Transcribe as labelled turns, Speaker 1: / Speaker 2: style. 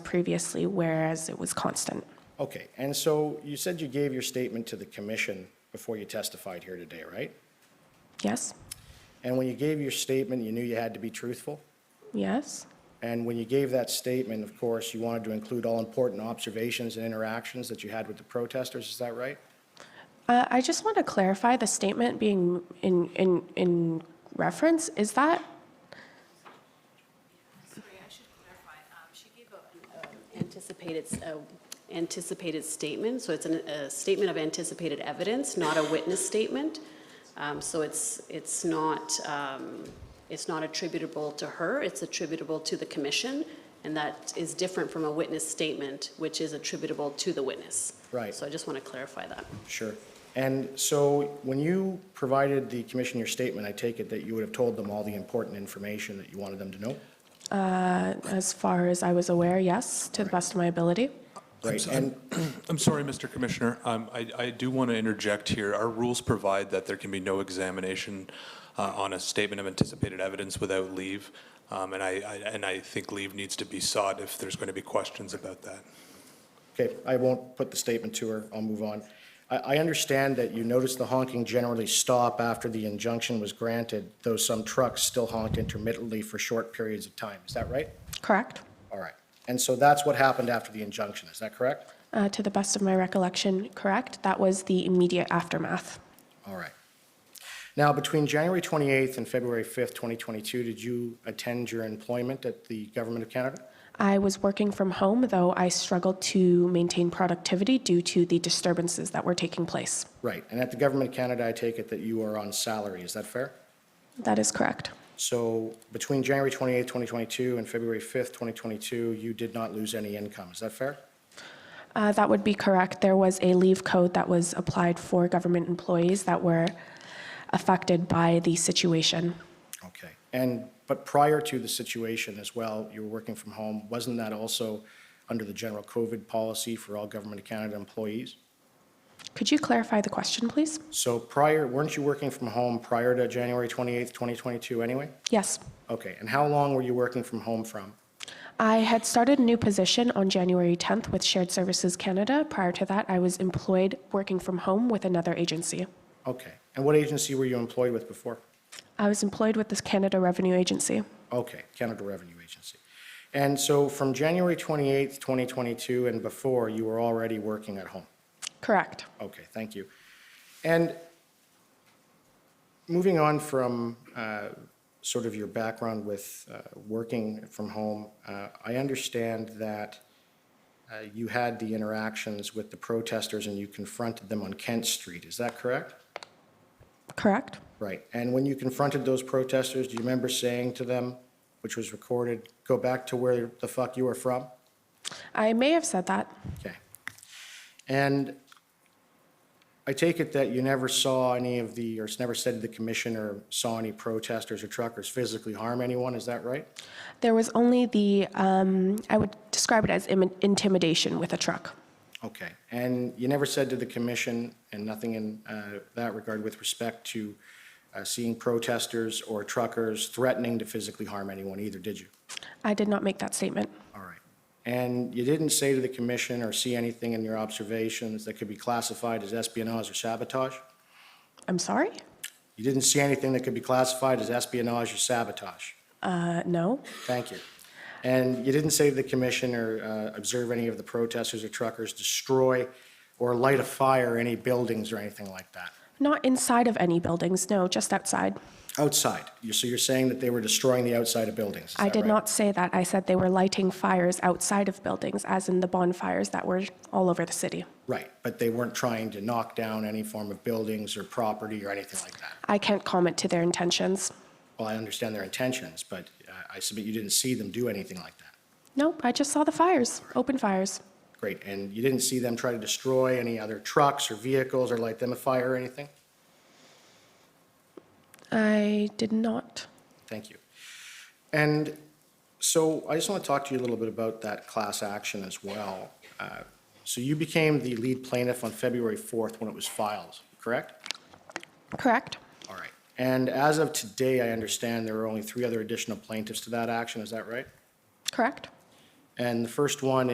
Speaker 1: previously, whereas it was constant.
Speaker 2: Okay, and so you said you gave your statement to the commission before you testified here today, right?
Speaker 1: Yes?
Speaker 2: And when you gave your statement, you knew you had to be truthful?
Speaker 1: Yes?
Speaker 2: And when you gave that statement, of course, you wanted to include all important observations and interactions that you had with the protesters, is that right?
Speaker 1: Uh, I just want to clarify the statement being in, in, in reference, is that,
Speaker 3: Sorry, I should clarify. Um, She gave a- a anticipated, s- a anticipated statement, so it's an- a statement of anticipated evidence, not a witness statement. Um, So it's, it's not, um, it's not attributable to her, it's attributable to the commission, and that is different from a witness statement, which is attributable to the witness.
Speaker 2: Right.
Speaker 3: So I just want to clarify that.
Speaker 2: Sure. And so when you provided the commission your statement, I take it that you would have told them all the important information that you wanted them to know?
Speaker 1: as far as I was aware, yes, to the best of my ability?
Speaker 2: Right, and,
Speaker 4: I'm sorry, Mr. Commissioner. Um, I I do want to interject here. Our rules provide that there can be no examination uh, on a statement of anticipated evidence without leave, Um, and I I- and I think leave needs to be sought if there's going to be questions about that.
Speaker 2: okay, I won't put the statement to her, I'll move on. I, I understand that you noticed the honking generally stop after the injunction was granted, though some trucks still honked intermittently for short periods of time, is that right?
Speaker 1: Correct?
Speaker 2: All right. And so that's what happened after the injunction, is that correct?
Speaker 1: Uh, to the best of my recollection, correct? That was the immediate aftermath.
Speaker 2: All right. Now, between January 28th and February 5th, 2022, did you attend your employment at the Government of Canada?
Speaker 1: I was working from home, though I struggled to maintain productivity due to the disturbances that were taking place.
Speaker 2: Right. And at the Government of Canada, I take it that you are on salary, is that fair?
Speaker 1: That is correct.
Speaker 2: So between January 28th, 2022 and February 5th, 2022, you did not lose any income, is that fair?
Speaker 1: Uh, that would be correct. There was a leave code that was applied for government employees that were affected by the situation.
Speaker 2: Okay. And, but prior to the situation as well, you were working from home, wasn't that also under the general COVID policy for all Government of Canada employees?
Speaker 1: Could you clarify the question, please?
Speaker 2: So prior, weren't you working from home prior to January 28th, 2022 anyway?
Speaker 1: Yes.
Speaker 2: Okay, and how long were you working from home from?
Speaker 1: I had started a new position on January 10th with Shared Services Canada. Prior to that, I was employed working from home with another agency.
Speaker 2: Okay, and what agency were you employed with before?
Speaker 1: I was employed with the Canada Revenue Agency.
Speaker 2: Okay, Canada Revenue Agency. And so from January 28th, 2022 and before, you were already working at home?
Speaker 1: Correct.
Speaker 2: Okay, thank you. And moving on from uh, sort of your background with uh, working from home, uh, I understand that uh, you had the interactions with the protesters and you confronted them on Kent Street, is that correct?
Speaker 1: Correct.
Speaker 2: Right, and when you confronted those protesters, do you remember saying to them, which was recorded, "Go back to where the fuck you were from"?
Speaker 1: I may have said that.
Speaker 2: Okay. And I take it that you never saw any of the, or it's never said to the commission or saw any protesters or truckers physically harm anyone, is that right?
Speaker 1: There was only the, um, I would describe it as im- intimidation with a truck.
Speaker 2: Okay. And you never said to the commission, and nothing in uh, that regard with respect to uh, seeing protesters or truckers threatening to physically harm anyone either, did you?
Speaker 1: I did not make that statement.
Speaker 2: All right. And you didn't say to the commission or see anything in your observations that could be classified as espionage or sabotage?
Speaker 1: I'm sorry?
Speaker 2: You didn't see anything that could be classified as espionage or sabotage.
Speaker 1: Uh, no.
Speaker 2: Thank you. And you didn't say to the commission or uh, observe any of the protesters or truckers destroy or light a fire any buildings or anything like that.
Speaker 1: Not inside of any buildings, no, just outside.
Speaker 2: Outside. You- So you're saying that they were destroying the outside of buildings? is
Speaker 1: I
Speaker 2: that
Speaker 1: did
Speaker 2: right?
Speaker 1: not say that. I said they were lighting fires outside of buildings, as in the bonfires that were all over the city.
Speaker 2: Right, but they weren't trying to knock down any form of buildings or property or anything like that.
Speaker 1: I can't comment to their intentions.
Speaker 2: Well, I understand their intentions, but uh, I submit you didn't see them do anything like that.
Speaker 1: Nope, I just saw the fires, open fires.
Speaker 2: Great. And you didn't see them try to destroy any other trucks or vehicles or light them afire or anything?
Speaker 1: I did not.
Speaker 2: Thank you. And so I just want to talk to you a little bit about that class action as well. Uh, So you became the lead plaintiff on February 4th when it was filed, correct?
Speaker 1: Correct?
Speaker 2: All right. And as of today, I understand there are only three other additional plaintiffs to that action, is that right?
Speaker 1: Correct?
Speaker 2: And the first one